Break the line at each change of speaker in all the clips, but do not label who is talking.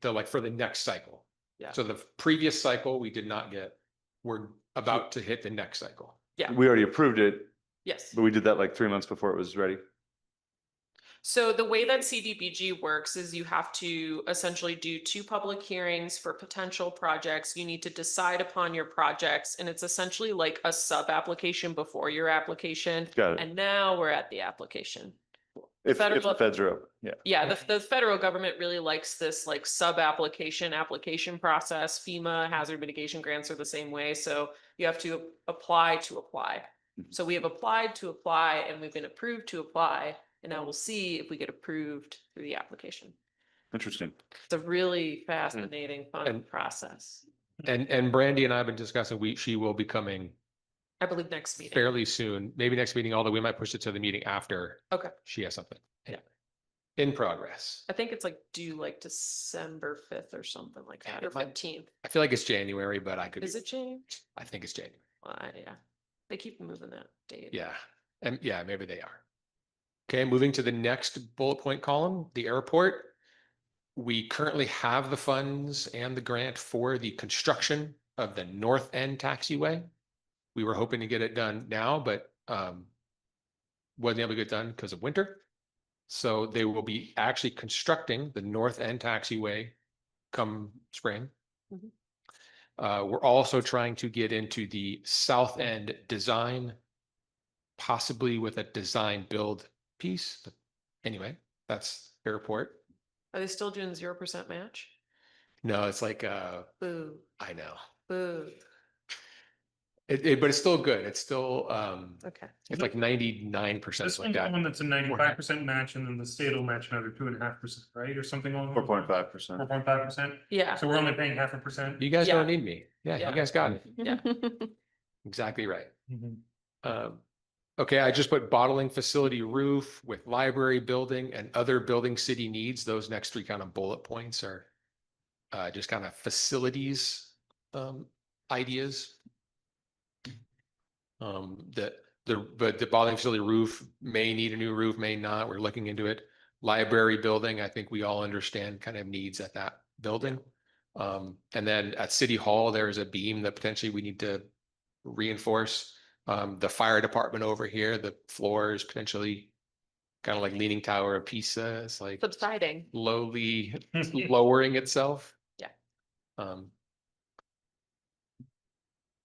the, like, for the next cycle.
Yeah.
So the previous cycle, we did not get, we're about to hit the next cycle.
We already approved it,
Yes.
but we did that like three months before it was ready.
So the way that CDBG works is you have to essentially do two public hearings for potential projects. You need to decide upon your projects and it's essentially like a sub-application before your application.
Got it.
And now we're at the application.
If, if the
federal-
feds are open, yeah.
Yeah, the, the federal government really likes this like sub-application, application process. FEMA hazard mitigation grants are the same way, so you have to apply to apply.
Mm-hmm.
Mhm.
So we have applied to apply and we've been approved to apply, and now we'll see if we get approved through the application.
Interesting.
It's a really fascinating, fun
Mm-hmm. And-
process.
And, and Brandy and I have been discussing, we, she will be coming
I believe next meeting.
fairly soon, maybe next meeting, although we might push it to the meeting after.
Okay.
She has something.
Yeah.
In progress.
I think it's like due like December fifth or something like that, or
It might-
fifteenth.
I feel like it's January, but I could. be-
Is it changed?
I think it's January.
Well, I- yeah, they keep moving that date.
Yeah, and yeah, maybe they are. Okay, moving to the next bullet point column, the airport. We currently have the funds and the grant for the construction of the north end taxiway. We were hoping to get it done now, but um wasn't able to get done because of winter. So they will be actually constructing the north end taxiway come spring.
Mhm.
Uh, we're also trying to get into the south end design possibly with a design build piece. But Anyway, that's airport.
Are they still doing zero percent match?
No, it's like, uh,
Boo,
I know.
boo.
It, it, but it's still good. It's still, um,
Okay.
it's like ninety-nine percent
This
like
one's the
that.
one that's a ninety-five percent match and then the state will match another two and a half percent, right? Or something along.
Four point five percent.
Four point five percent.
Yeah.
So we're only paying half a percent.
You guys
Yeah.
don't need me. Yeah,
Yeah.
you guys got it.
Yeah.
Exactly right.
Mhm.
Um, okay, I just put bottling facility roof with library building and other building city needs. Those next three kind of bullet points are uh, just kind of facilities, um, ideas. Um, the, the, but the bottling facility roof may need a new roof, may not. We're looking into it. Library building, I think we all understand kind of needs at that building. Um, and then at City Hall, there is a beam that potentially we need to reinforce. Um, the fire department over here, the floor is potentially kind of like leaning tower of Pisa. It's like
Subsiding.
slowly lowering itself.
Yeah.
Um.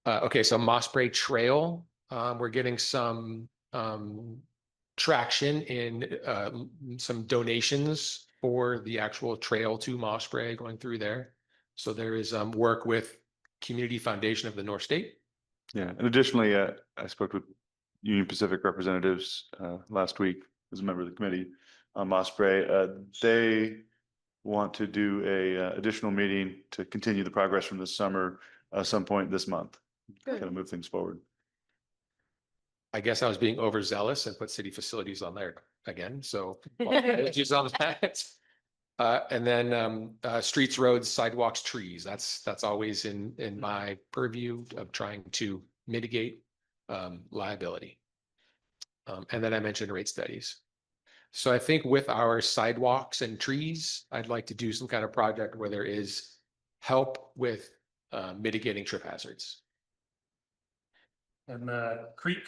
Uh, okay, so Mossbury Trail, um, we're getting some, um, traction in, uh, l- some donations for the actual trail to Mossbury going through there. So there is, um, work with Community Foundation of the North State.
Yeah, and additionally, uh, I spoke with Union Pacific representatives, uh, last week as a member of the committee on Mossbury. Uh, they want to do a uh, additional meeting to continue the progress from this summer, uh, some point this month.
Good.
Kind of move things forward.
I guess I was being overzealous and put city facilities on there again, so. apologies on that. Uh, and then, um, uh, streets, roads, sidewalks, trees, that's, that's always in,
Mm-hmm.
in my purview of trying to mitigate, um, liability. Um, and then I mentioned rate studies. So I think with our sidewalks and trees, I'd like to do some kind of project where there is help with, uh, mitigating trip hazards.
And the creek.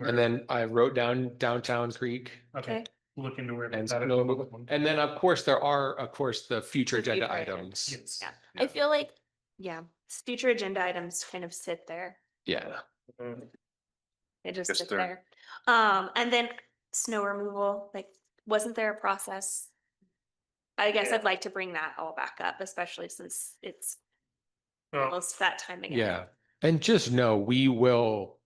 And then I wrote down downtown creek.
Okay, look into where.
And
that is.
no- and then, of course, there are, of course, the future
The
agenda
future agenda.
items.
Yes.
Yeah. I feel like, yeah, s- future agenda items kind of sit there.
Yeah.
Mhm.
They just
Yes,
sit
they're-
there. Um, and then snow removal, like, wasn't there a process? I guess I'd like to bring that all back up, especially since it's
Well,
almost that time again.
Yeah. And just know we will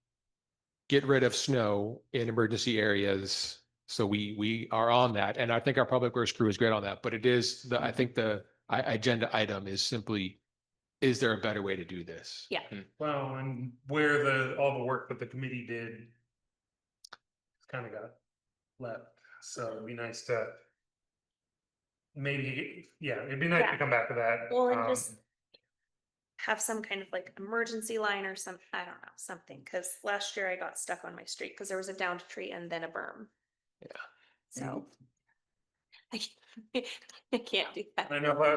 get rid of snow in emergency areas. So we, we are on that. And I think our public works crew is great on that, but it is the, I think the I, agenda item is simply, is there a better way to do this?
Yeah.
Well, and where the, all the work that the committee did. Kind of got left, so it'd be nice to. Maybe, yeah, it'd be nice
Yeah.
to come back to that.
Well, and
um,
just have some kind of like emergency line or some, I don't know, something, because last year I got stuck on my street because there was a downed tree and then a berm.
Yeah.
So. I can't do that.
I know, uh,